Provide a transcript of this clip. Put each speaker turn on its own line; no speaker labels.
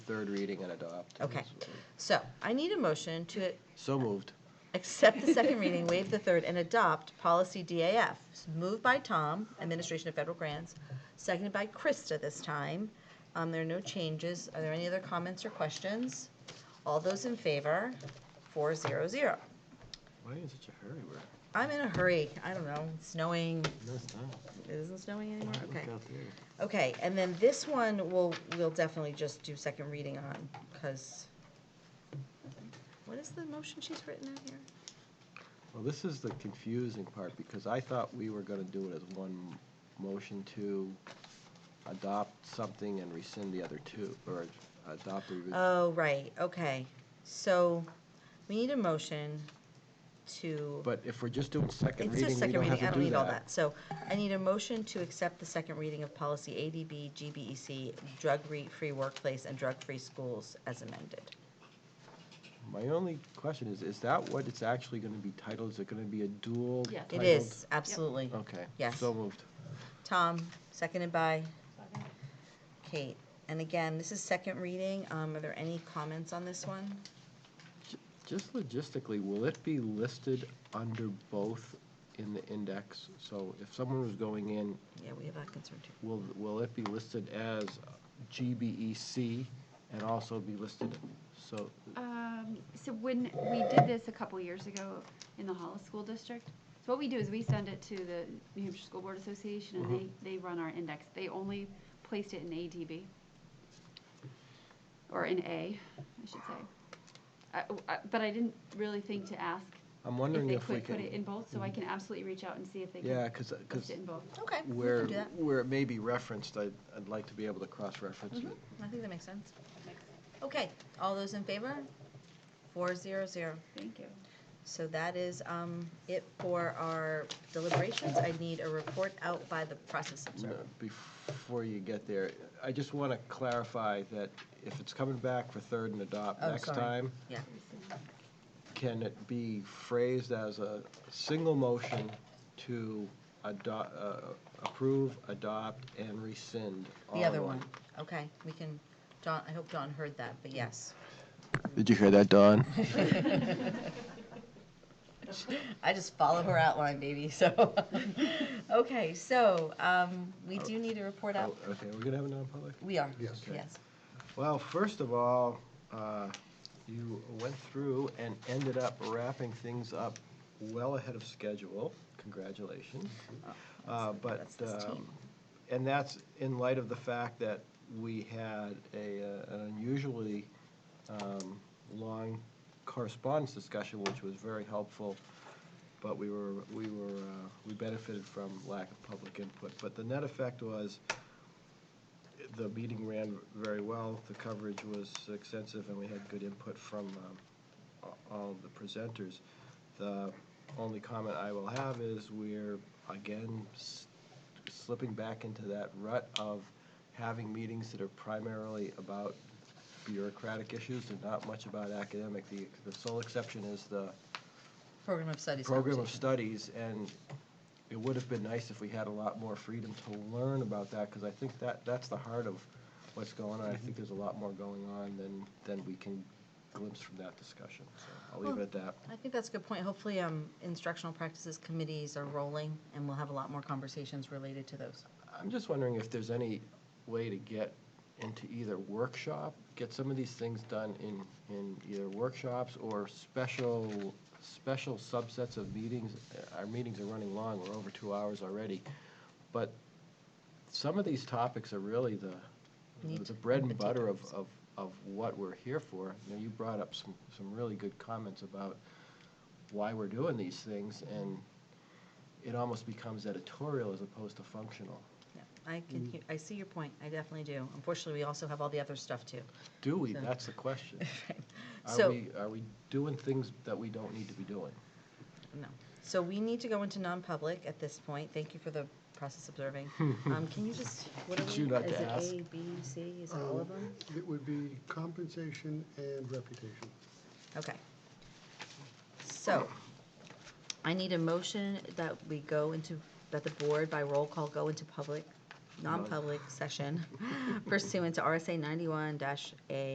third reading and adopt.
Okay. So I need a motion to
So moved.
accept the second reading, waive the third, and adopt policy DAF. Moved by Tom, Administration of Federal Grants, seconded by Krista this time. Um, There are no changes. Are there any other comments or questions? All those in favor, four zero zero.
Why are you in such a hurry? We're,
I'm in a hurry. I don't know. It's snowing.
no, it's not.
It isn't snowing anymore?
Look
Okay.
out there.
Okay, and then this one, we'll, we'll definitely just do second reading on, because, what is the motion she's written out here?
Well, this is the confusing part, because I thought we were gonna do it as one motion to adopt something and rescind the other two, or adopt or revi-
Oh, right, okay. So, we need a motion to,
But if we're just doing second
it's just
reading, we
second
don't have
reading, I
to
don't
do
need all
that.
that. So, I need a motion to accept the second reading of policy ADB, GBEC, drug-free workplace and drug-free schools as amended.
My only question is, is that what it's actually gonna be titled? Is it gonna be a dual
Yes.
titled? Oh.
It is, absolutely.
Okay.
Yes.
So moved.
Tom, seconded by Kate. And again, this is second reading. Um, Are there any comments on this one?
J- Just logistically, will it be listed under both in the index? So if someone was going in,
Yeah, we have that concern too.
will, will it be listed as GBEC and also be listed? So,
Um, so when we did this a couple years ago in the Hollis School District, so what we do is we send it to the New Hampshire School Board Association and
Mm-hmm.
they, they run our index. They only placed it in ADB. Or in A, I should say. I- I- But I didn't really think to ask
I'm
if
wondering
they
if we
could put it
can.
in
Mm-hmm.
both, so I can absolutely reach out and see if they
Yeah,
can
because,
post it in both.
Okay, we
where,
can do that.
where it may be referenced, I'd, I'd like to be able to cross-reference it.
Mhm, I think that makes sense. Okay, all those in favor? Four zero zero.
Thank you.
So that is um, it for our deliberations. I need a report out by the process
No,
observer.
Before you get there, I just want to clarify that if it's coming back for third and adopt
Oh,
next
sorry.
time,
Yeah,
can it be phrased as a single motion to adopt, approve, adopt, and rescind? all
the other
in
one. Okay, we can, John, I hope John heard that, but yes.
Did you hear that, Don?
I just follow her outline, baby, so. Okay, so um, we do need a report out.
Oh, Okay, we're going to have a non-public?
We are,
Oh. Yes.
yes.
Well, first of all, uh, you went through and ended up wrapping things up well ahead of schedule. Congratulations. Uh, But,
Oh, That's this team.
um, and that's in light of the fact that we had a, uh, an unusually um, long correspondence discussion, which was very helpful, but we were, we were, uh, we benefited from lack of public input. But the net effect was, the meeting ran very well, the coverage was extensive, and we had good input from um, a- all of the presenters. The only comment I will have is we're, again, s- slipping back into that rut of having meetings that are primarily about bureaucratic issues and not much about academic. The the sole exception is the
Program of Studies.
program of
conversation.
studies, and it would have been nice if we had a lot more freedom to learn about that, because I think that, that's the heart of what's going on. I
Mm-hmm.
think there's a lot more going on than, than we can glimpse from that discussion, so I'll leave it at that.
I think that's a good point. Hopefully, um, instructional practices committees are rolling, and we'll have a lot more conversations related to those.
I'm just wondering if there's any way to get into either workshop, get some of these things done in, in either workshops or special, special subsets of meetings. Our meetings are running long, we're over two hours already. But some of these topics are really the,
Meat
the bread and
and
butter of,
potatoes.
of, of what we're here for. You know, you brought up some, some really good comments about why we're doing these things, and it almost becomes editorial as opposed to functional.
Yeah, I can, hear- I see your point. I definitely do. Unfortunately, we also have all the other stuff, too.
Do we?
So-
That's the question. Are
So,
we, are we doing things that we don't need to be doing?
no. So we need to go into non-public at this point. Thank you for the process observing. Um, Can you just, what are
Did you
we,
not
is
to
it
ask?
A, B, C? Is it all of them?
It would be compensation and reputation.
Oh.
Okay. So, I need a motion that we go into, that the board by roll call go into public, non-public session pursuant to RSA ninety-one dash A